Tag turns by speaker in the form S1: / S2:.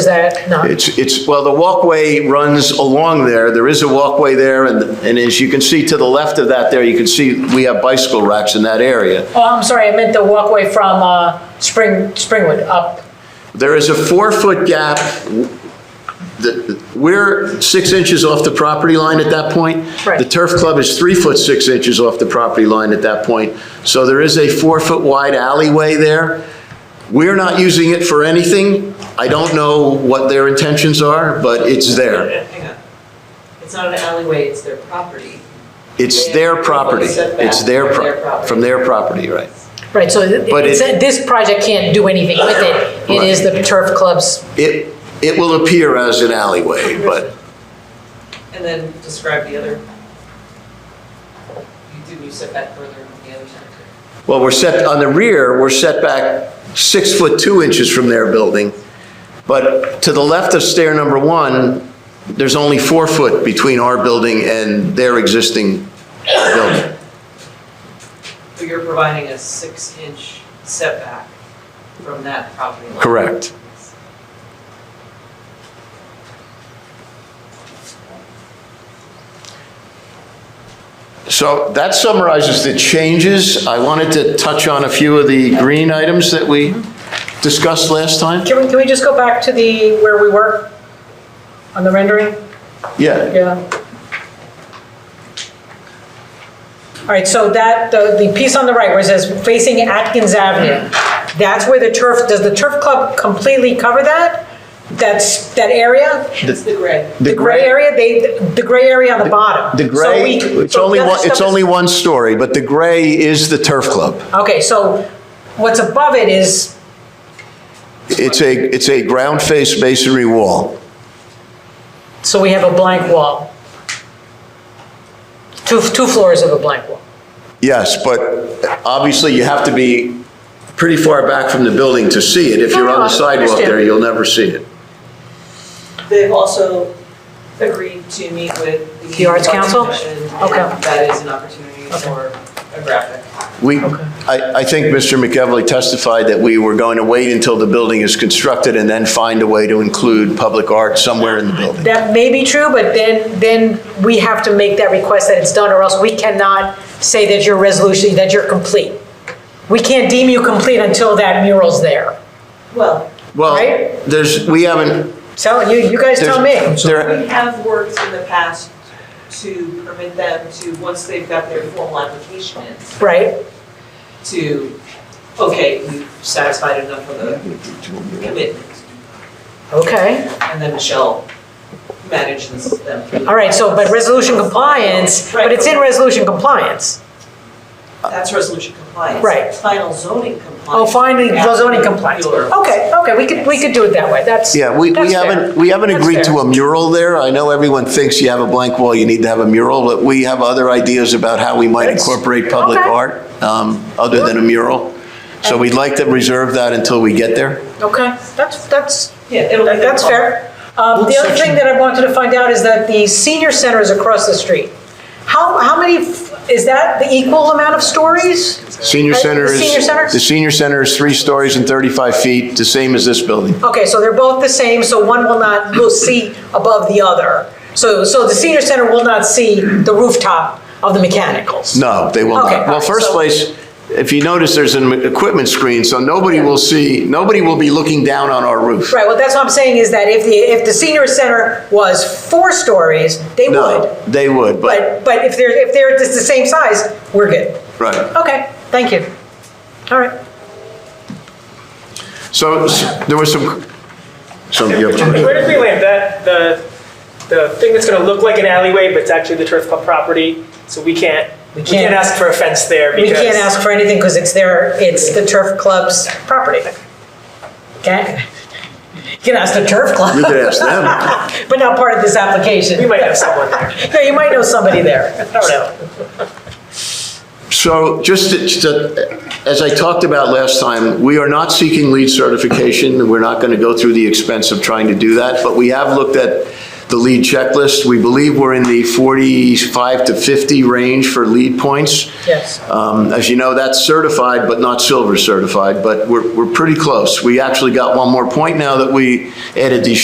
S1: Is that not?
S2: It's, it's, well, the walkway runs along there, there is a walkway there, and, and as you can see to the left of that there, you can see we have bicycle racks in that area.
S1: Oh, I'm sorry, I meant the walkway from uh, Spring, Springwood up.
S2: There is a four-foot gap, The- we're six inches off the property line at that point.
S1: Right.
S2: The turf club is three foot six inches off the property line at that point, so there is a four-foot wide alleyway there. We're not using it for anything, I don't know what their intentions are, but it's there,
S3: Hang on. It's not an alleyway, it's their property.
S2: it's their property, it's their, pro- from their property, right.
S1: Right, so th-
S2: But
S1: it's-
S2: it-
S1: this project can't do anything with it. It is the turf club's,
S2: It, it will appear as an alleyway, but
S3: And then describe the other. You Didn't you set back further on the other side?
S2: Well, we're set, on the rear, we're set back six foot two inches from their building. But to the left of stair number one, there's only four foot between our building and their existing building.
S3: So you're providing a six-inch setback from that property line?
S2: Correct. So that summarizes the changes. I wanted to touch on a few of the green items that we discussed last time.
S1: can we, can we just go back to the, where we were on the rendering?
S2: Yeah,
S1: Yeah. All right, so that, the, the piece on the right where it says facing Atkins Avenue, that's where the turf, does the turf club completely cover that? That's, that area?
S3: It's the gray.
S1: The gray area, they, the gray area on the bottom.
S2: The
S1: So
S2: gray,
S1: we-
S2: it's
S1: so
S2: only
S1: the other
S2: one, it's
S1: stuff is-
S2: only one story, but the gray is the turf club.
S1: Okay, so what's above it is,
S2: It's a, it's a ground face masonry wall.
S1: so we have a blank wall. Two, two floors of a blank wall.
S2: Yes, but obviously you have to be pretty far back from the building to see it. If you're on
S1: No,
S2: the
S1: I
S2: sidewalk there,
S1: understand.
S2: you'll never see it.
S3: They've also agreed to meet with the.
S1: The Arts Council?
S3: Commission, and
S1: Okay.
S3: That is an opportunity for a graphic.
S2: We, I, I think Mr. McEvely testified that we were going to wait until the building is constructed and then find a way to include public art somewhere in the building.
S1: That may be true, but then, then we have to make that request that it's done, or else we cannot say that your resolution, that you're complete. We can't deem you complete until that mural's there.
S3: Well,
S2: Well,
S1: Right?
S2: there's, we haven't,
S1: So you, you guys tell me.
S2: there's, there,
S3: We have worked in the past to permit them to, once they've got their formal application in,
S1: Right,
S3: to, okay, we've satisfied enough of the commitment.
S1: okay.
S3: And then Michelle manages them. through the
S1: All right, so, but
S3: process.
S1: resolution compliance, but it's in resolution compliance.
S3: That's resolution compliance.
S1: Right.
S3: Final zoning compliance.
S1: Oh, finally,
S3: After
S1: zoning compliance.
S3: your-
S1: Okay, okay, we could, we could do it that way, that's.
S2: yeah, we, we
S1: that's fair.
S2: haven't, we haven't
S1: That's
S2: agreed to
S1: fair.
S2: a mural there. I know everyone thinks you have a blank wall, you need to have a mural, but we have other ideas about how we might
S1: That's-
S2: incorporate public
S1: okay.
S2: art, um, other than a mural. So we'd like to reserve that until we get there.
S1: Okay, that's, that's,
S3: Yeah, it'll be.
S1: That- That's fair. Um, The other thing that I wanted to find out is that the senior center is across the street. How, how many, f- is that the equal amount of stories?
S2: Senior
S1: Uh,
S2: center
S1: the
S2: is.
S1: senior center?
S2: The senior center is three stories and 35 feet, the same as this building.
S1: Okay, so they're both the same, so one will not, will see above the other. So, so the senior center will not see the rooftop of the mechanicals?
S2: No, they will
S1: Okay, all
S2: not. Well,
S1: right,
S2: first
S1: so-
S2: place, if you notice, there's an equipment screen, so nobody will see, nobody will be looking down on our roof.
S1: Right, well, that's what I'm saying is that if the, if the senior center was four stories, they
S2: No,
S1: would.
S2: they would,
S1: But,
S2: but,
S1: but if they're, if they're just the same size, we're good.
S2: right.
S1: Okay, thank you. All right.
S2: So s- there was some, some, you have a question?
S4: Where did we land that, the, the thing that's gonna look like an alleyway, but it's actually the turf club property, so we can't, we
S1: can't.
S4: can't ask for a fence there
S1: We
S4: because.
S1: can't ask for anything because it's their, it's the turf club's property. Okay? You can ask the turf
S2: you
S1: club,
S2: could ask them.
S1: but not part of this application.
S4: We might have someone there.
S1: Yeah, you might know somebody there. I don't know.
S2: So just to- to, as I talked about last time, we are not seeking lead certification. We're not going to go through the expense of trying to do that, but we have looked at the lead checklist. We believe we're in the 45 to 50 range for lead points.
S1: Yes.
S2: Um, As you know, that's certified, but not silver certified, but we're, we're pretty close. We actually got one more point now that we added these